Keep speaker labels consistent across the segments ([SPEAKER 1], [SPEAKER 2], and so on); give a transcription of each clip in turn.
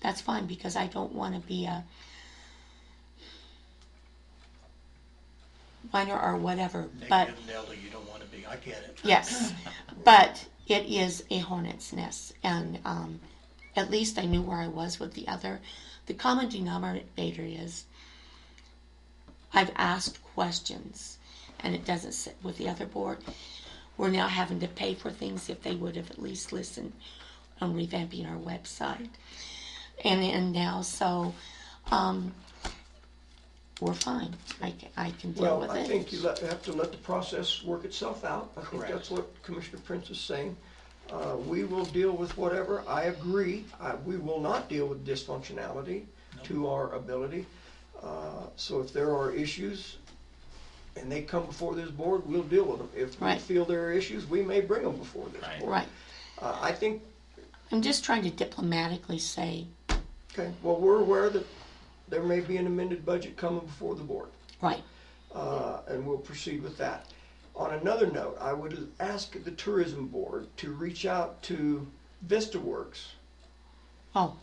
[SPEAKER 1] that's fine because I don't want to be a minor or whatever, but
[SPEAKER 2] Negative Nelda, you don't want to be, I get it.
[SPEAKER 1] yes, but it is a hornet's nest, and um, at least I knew where I was with the other. The common denominator is I've asked questions, and it doesn't sit with the other board. We're now having to pay for things if they would have at least listened on revamping our website. And, and now, so um, we're fine. I, ca- I can deal
[SPEAKER 3] Well,
[SPEAKER 1] with
[SPEAKER 3] I
[SPEAKER 1] it.
[SPEAKER 3] think you let- have to let the process work itself out. I think
[SPEAKER 2] Correct.
[SPEAKER 3] that's what Commissioner Prince is saying. Uh, We will deal with whatever, I agree, I- we will not deal with dysfunctionality to our ability. Uh, So if there are issues and they come before this board, we'll deal with them. If we
[SPEAKER 1] Right.
[SPEAKER 3] feel there are issues, we may bring them before this
[SPEAKER 2] Right.
[SPEAKER 3] board.
[SPEAKER 1] right.
[SPEAKER 3] Uh, I think,
[SPEAKER 1] I'm just trying to diplomatically say,
[SPEAKER 3] okay, well, we're aware that there may be an amended budget coming before the board.
[SPEAKER 1] right,
[SPEAKER 3] uh, and we'll proceed with that. On another note, I would ask the tourism board to reach out to Vista Works.
[SPEAKER 1] oh,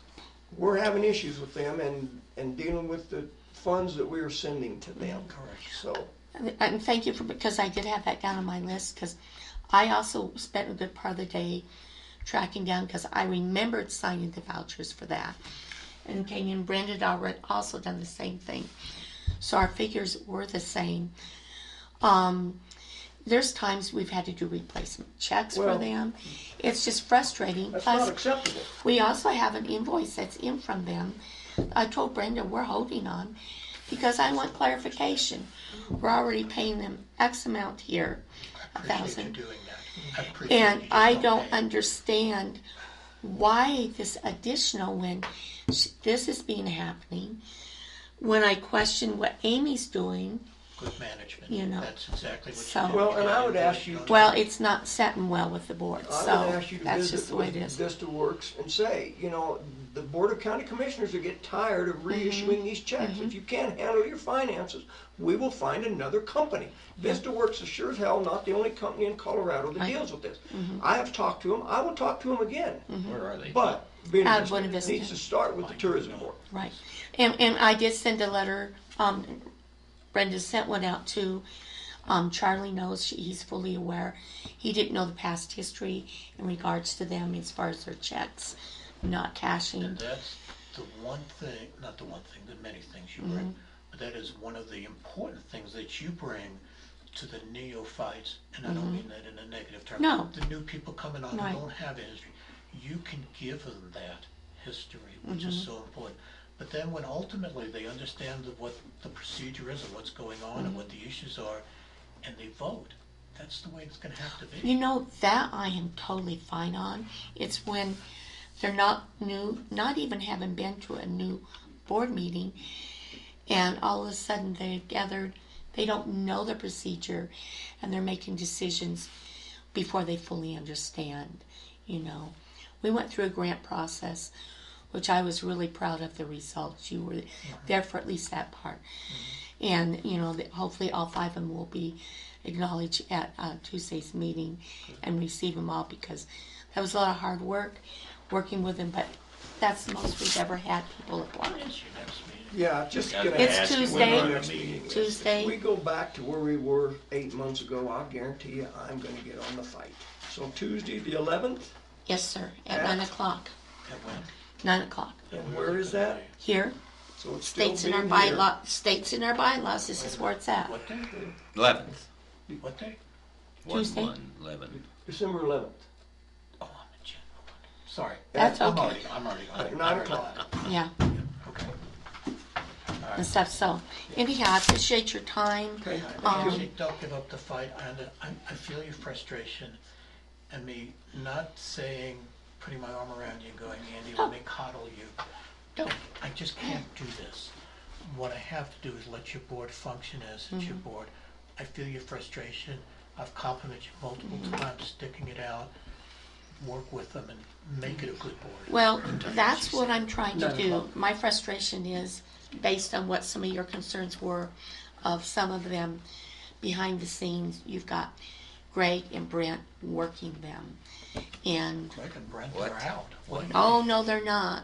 [SPEAKER 3] We're having issues with them and, and dealing with the funds that we are sending to them.
[SPEAKER 2] Correct.
[SPEAKER 3] So,
[SPEAKER 1] and- and thank you for, because I did have that down on my list, because I also spent a good part of the day tracking down, because I remembered signing the vouchers for that. And Kane and Brenda had already also done the same thing. So our figures were the same. Um, there's times we've had to do replacement checks for
[SPEAKER 3] Well-
[SPEAKER 1] them. It's just frustrating.
[SPEAKER 3] that's
[SPEAKER 1] Plus,
[SPEAKER 3] not acceptable.
[SPEAKER 1] We also have an invoice that's in from them. I told Brenda we're holding on because I want clarification. We're already paying them X amount here, a
[SPEAKER 2] Appreciate you
[SPEAKER 1] thousand.
[SPEAKER 2] doing that. I appreciate
[SPEAKER 1] And
[SPEAKER 2] you
[SPEAKER 1] I
[SPEAKER 2] just
[SPEAKER 1] don't
[SPEAKER 2] pay.
[SPEAKER 1] understand why this additional when sh- this is being happening. When I question what Amy's doing,
[SPEAKER 2] Good management.
[SPEAKER 1] you know,
[SPEAKER 2] That's exactly what
[SPEAKER 1] so-
[SPEAKER 2] you do.
[SPEAKER 3] Well, and I would
[SPEAKER 2] You're
[SPEAKER 3] ask you-
[SPEAKER 2] doing it.
[SPEAKER 1] well, it's not setting well with the board,
[SPEAKER 3] I would
[SPEAKER 1] so
[SPEAKER 3] ask you to
[SPEAKER 1] that's just
[SPEAKER 3] visit
[SPEAKER 1] the way it
[SPEAKER 3] with
[SPEAKER 1] is.
[SPEAKER 3] Vista Works and say, you know, the Board of County Commissioners are getting tired of
[SPEAKER 1] Mm-hmm.
[SPEAKER 3] reissuing these checks. If you can't handle your finances, we will find another company. Vista Works is sure as hell not the only company in Colorado that
[SPEAKER 1] Right. Mm-hmm.
[SPEAKER 3] deals with this. I have talked to them, I will talk to them again.
[SPEAKER 4] Where are they?
[SPEAKER 3] But Buena
[SPEAKER 1] Out of Buena Vista.
[SPEAKER 3] Vista needs to start with the tourism board.
[SPEAKER 1] Right, and, and I did send a letter, um, Brenda sent one out to, um, Charlie knows, she- he's fully aware. He didn't know the past history in regards to them as far as their checks, not
[SPEAKER 2] And
[SPEAKER 1] cashing.
[SPEAKER 2] that's the one thing, not the one thing, the many things you bring,
[SPEAKER 1] Mm-hmm.
[SPEAKER 2] but that is one of the important things that you bring to the neophytes, and I don't mean that in a negative term.
[SPEAKER 1] Mm-hmm. No.
[SPEAKER 2] The new people coming on
[SPEAKER 1] Right.
[SPEAKER 2] who don't have a history, you can give them that history, which is
[SPEAKER 1] Mm-hmm.
[SPEAKER 2] so important. But then when ultimately they understand the- what the procedure is and what's going on
[SPEAKER 1] Mm-hmm.
[SPEAKER 2] and what the issues are, and they vote, that's the way it's gonna have to be.
[SPEAKER 1] You know, that I am totally fine on. It's when they're not new, not even having been to a new board meeting, and all of a sudden they've gathered, they don't know the procedure, and they're making decisions before they fully understand, you know. We went through a grant process, which I was really proud of the results. You were there for at least that part.
[SPEAKER 3] Mm-hmm.
[SPEAKER 1] And, you know, that hopefully all five of them will be acknowledged at uh, Tuesday's meeting and receive them all because that was a lot of hard work working with them, but that's the most we've ever had people apply.
[SPEAKER 2] It's your next meeting.
[SPEAKER 3] Yeah, just gonna
[SPEAKER 1] It's
[SPEAKER 3] ask you when
[SPEAKER 1] Tuesday.
[SPEAKER 3] our next meeting is.
[SPEAKER 1] Tuesday.
[SPEAKER 3] If we go back to where we were eight months ago, I guarantee you, I'm gonna get on the fight. So Tuesday, the eleventh,
[SPEAKER 1] Yes, sir, at
[SPEAKER 3] Yeah.
[SPEAKER 1] nine o'clock,
[SPEAKER 2] And when-
[SPEAKER 1] nine o'clock.
[SPEAKER 3] and where is that?
[SPEAKER 1] Here,
[SPEAKER 3] So it's still
[SPEAKER 1] states in our
[SPEAKER 3] being here.
[SPEAKER 1] bylaw, states in our bylaws, this is where it's at.
[SPEAKER 2] What day?
[SPEAKER 4] Eleventh.
[SPEAKER 2] What day?
[SPEAKER 4] One,
[SPEAKER 1] Tuesday.
[SPEAKER 4] one, eleven.
[SPEAKER 3] December eleventh,
[SPEAKER 2] Oh, I'm a general. Sorry.
[SPEAKER 1] That's
[SPEAKER 2] I'm
[SPEAKER 1] okay.
[SPEAKER 2] already, I'm already. I'm
[SPEAKER 3] at
[SPEAKER 2] already-
[SPEAKER 3] nine o'clock.
[SPEAKER 1] Yeah,
[SPEAKER 2] Okay.
[SPEAKER 1] and stuff, so anyhow, I appreciate your time.
[SPEAKER 3] Okay,
[SPEAKER 1] Um,
[SPEAKER 2] Usually don't give up the fight. I, under- I, I feel your frustration and me not saying, putting my arm around you and going, Andy, let me coddle you. Don't. I just can't do this. What I have to do is let your board function as it's your board. I feel your frustration. I've complimented you multiple times, sticking it out. Work with them and make it a good board.
[SPEAKER 1] Well, that's what I'm trying to do. My frustration is based on what some of your concerns were of some of them behind the scenes. You've got Greg and Brent working them. And,
[SPEAKER 2] Greg and Brent
[SPEAKER 4] What?
[SPEAKER 2] are out. What?
[SPEAKER 1] oh, no, they're not.